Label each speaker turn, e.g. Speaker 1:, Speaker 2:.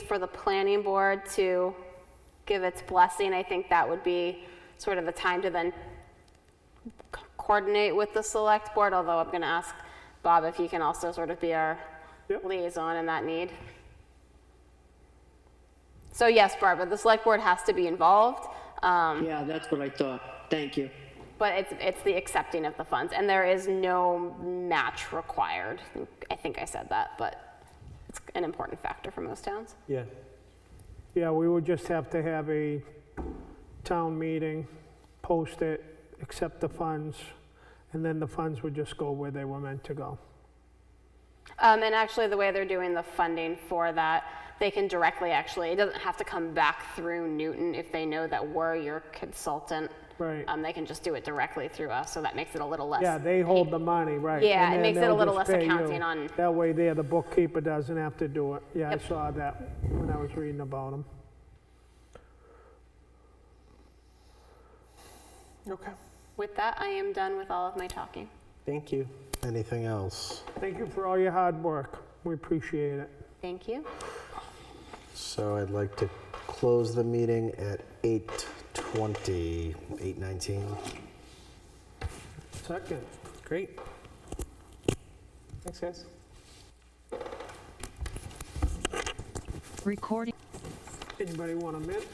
Speaker 1: for the planning board to give its blessing, I think that would be sort of the time to then c- coordinate with the select board, although I'm going to ask Bob if he can also sort of be our
Speaker 2: Yep.
Speaker 1: liaison in that need. So yes, Barbara, the select board has to be involved, um,
Speaker 3: Yeah, that's what I thought. Thank you.
Speaker 1: but it's, it's the accepting of the funds, and there is no match required. I think I said that, but it's an important factor for most towns.
Speaker 2: Yeah. Yeah, we would just have to have a town meeting, post it, accept the funds, and then the funds would just go where they were meant to go.
Speaker 1: Um, and actually, the way they're doing the funding for that, they can directly actually, it doesn't have to come back through Newton if they know that we're your consultant.
Speaker 2: Right.
Speaker 1: Um, they can just do it directly through us, so that makes it a little less.
Speaker 2: Yeah, they hold the money, right.
Speaker 1: Yeah,
Speaker 2: and
Speaker 1: it
Speaker 2: then
Speaker 1: makes it
Speaker 2: they'll
Speaker 1: a little
Speaker 2: just
Speaker 1: less
Speaker 2: pay you.
Speaker 1: accounting on-
Speaker 2: That way there, the bookkeeper doesn't have to do it. Yeah, I
Speaker 1: Yep.
Speaker 2: saw that when I was reading about them.
Speaker 4: Okay.
Speaker 1: With that, I am done with all of my talking.
Speaker 4: Thank you.
Speaker 5: Anything else?
Speaker 2: Thank you for all your hard work. We appreciate it.
Speaker 1: Thank you.
Speaker 5: So I'd like to close the meeting at 8:20, 8:19.
Speaker 2: Second.
Speaker 4: Great. Thanks, guys.
Speaker 6: Recording.
Speaker 2: Anybody want a minute?